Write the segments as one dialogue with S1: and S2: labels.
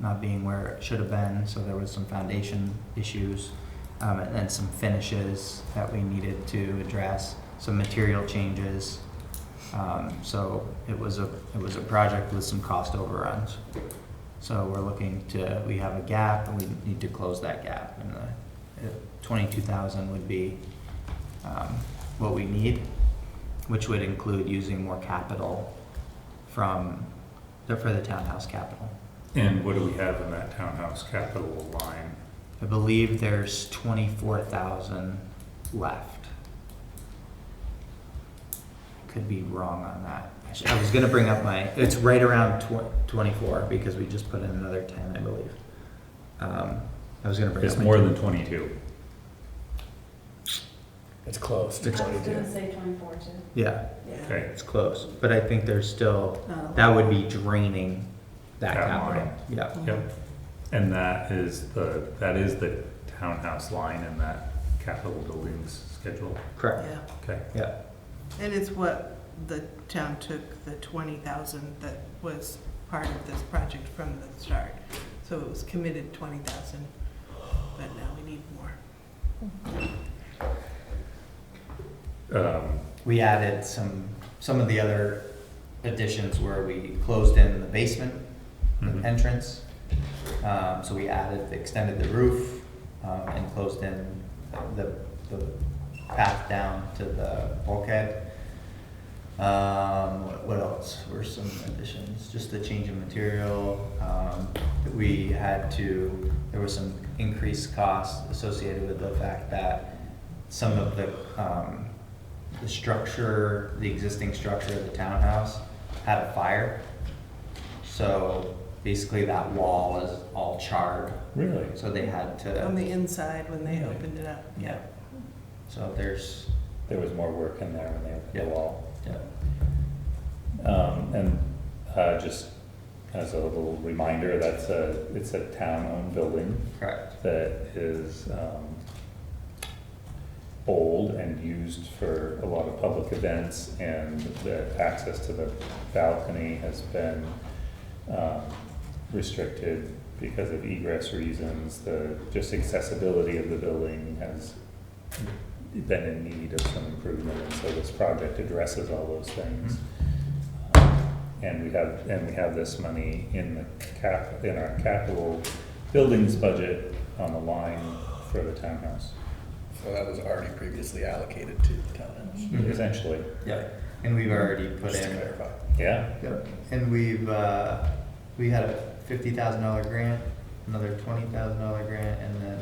S1: not being where it should have been, so there was some foundation issues. Um, and then some finishes that we needed to address, some material changes. Um, so it was a, it was a project with some cost overruns. So we're looking to, we have a gap and we need to close that gap and the uh, twenty-two thousand would be um, what we need, which would include using more capital from, for the townhouse capital.
S2: And what do we have in that townhouse capital line?
S1: I believe there's twenty-four thousand left. Could be wrong on that. I sh- I was gonna bring up my, it's right around tw- twenty-four because we just put in another ten, I believe. Um, I was gonna bring up.
S2: It's
S1: my-
S2: more than twenty-two.
S3: It's close to
S4: I was gonna
S3: 22.
S4: say twenty-four too.
S1: Yeah,
S4: Yeah.
S2: Okay,
S1: it's close, but I think there's still,
S4: Oh.
S1: that would be draining that
S2: That
S1: capital.
S2: line.
S1: Yeah,
S2: yep. And that is the, that is the townhouse line in that capital buildings schedule.
S1: correct,
S5: Yeah,
S2: Okay,
S1: yeah,
S5: and it's what the town took the twenty thousand that was part of this project from the start. So it was committed twenty thousand, but now we need more.
S2: um,
S1: we added some, some of the other additions where we closed in the basement
S2: mhm.
S1: entrance. Um, so we added, extended the roof, um, and closed in the, the path down to the bulkhead. Um, what- what else were some additions? Just the change in material, um, that we had to, there was some increased costs associated with the fact that some of the, um, the structure, the existing structure of the townhouse had a fire. So basically that wall is all charred,
S2: Really?
S1: so they had
S5: On
S1: to,
S5: the inside, when they
S2: Yeah.
S5: opened it up.
S1: yeah. So there's,
S2: There was more work in there when they opened
S1: Yeah.
S2: the wall.
S1: yeah,
S2: Um, and, uh, just as a little reminder, that's a, it's a town-owned building.
S1: correct,
S2: that is um, old and used for a lot of public events, and the access to the balcony has been um, restricted because of egress reasons. The, just accessibility of the building has been in need of some improvement, and so this project addresses all those things. And we have, and we have this money in the cap, in our capital buildings budget on the line for the townhouse,
S6: So that was already previously allocated to the townhouse,
S1: Mhm.
S2: essentially,
S1: yeah. And we've already put
S6: Mm-hmm. just to
S1: in,
S6: clarify.
S2: yeah.
S1: Yep. and we've, uh, we had a fifty thousand dollar grant, another twenty thousand dollar grant, and then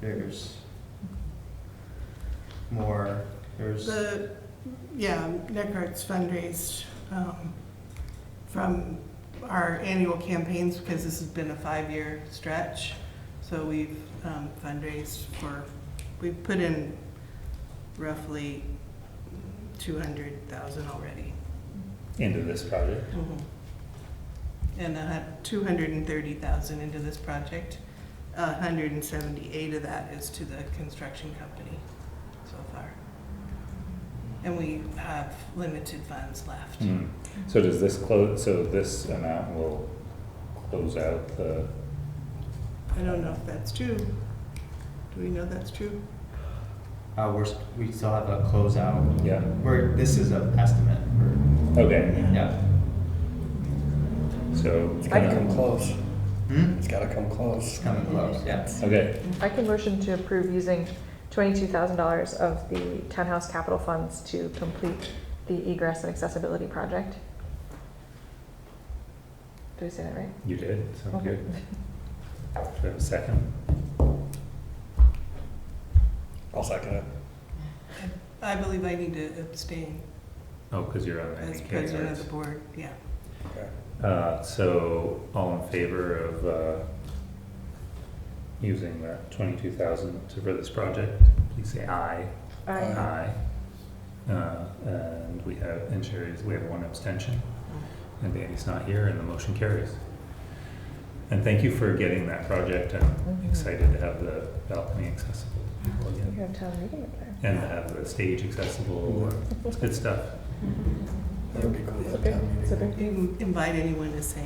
S1: there's more, there's,
S5: The, yeah, Nick Arts fundraised um, from our annual campaigns, because this has been a five-year stretch. So we've um, fundraised for, we've put in roughly two hundred thousand already.
S2: Into this project,
S5: And uh, two hundred and thirty thousand into this project. A hundred and seventy-eight of that is to the construction company so far. And we have limited funds left.
S2: Hmm. so does this close, so this amount will close out the,
S5: I don't know if that's true. Do we know that's true?
S1: uh, we're, s- we still have a closeout.
S2: yeah,
S1: We're, this is an estimate, we're,
S2: okay,
S1: yeah.
S2: so.
S6: It's gotta come close,
S1: Hmm?
S6: it's gotta come
S1: It's
S6: close.
S1: coming close, yeah.
S2: Okay,
S7: I can motion to approve using twenty-two thousand dollars of the townhouse capital funds to complete the egress and accessibility project. Did we say that right?
S2: you did, so
S7: Okay.
S2: good. Do I have a second?
S6: I'll second it.
S5: I believe I need to abstain
S2: Oh, because you're on
S5: as
S2: the
S5: president of
S2: cameras.
S5: the board, yeah.
S6: Okay.
S2: Uh, so, all in favor of, uh, using that twenty-two thousand for this project, please say aye.
S6: Aye.
S2: Aye. Uh, And we have, and Sherry's, we have one abstention. And Danny's not here and the motion carries. And thank you for getting that project. I'm
S7: Mhm.
S2: excited to have the balcony accessible to people
S7: You
S2: again.
S7: have town meeting up there.
S2: And to have the stage accessible. It's good stuff.
S6: That would be cool. to
S7: It's a
S6: have
S7: big,
S6: town meeting.
S7: it's a big
S5: You can invite anyone to say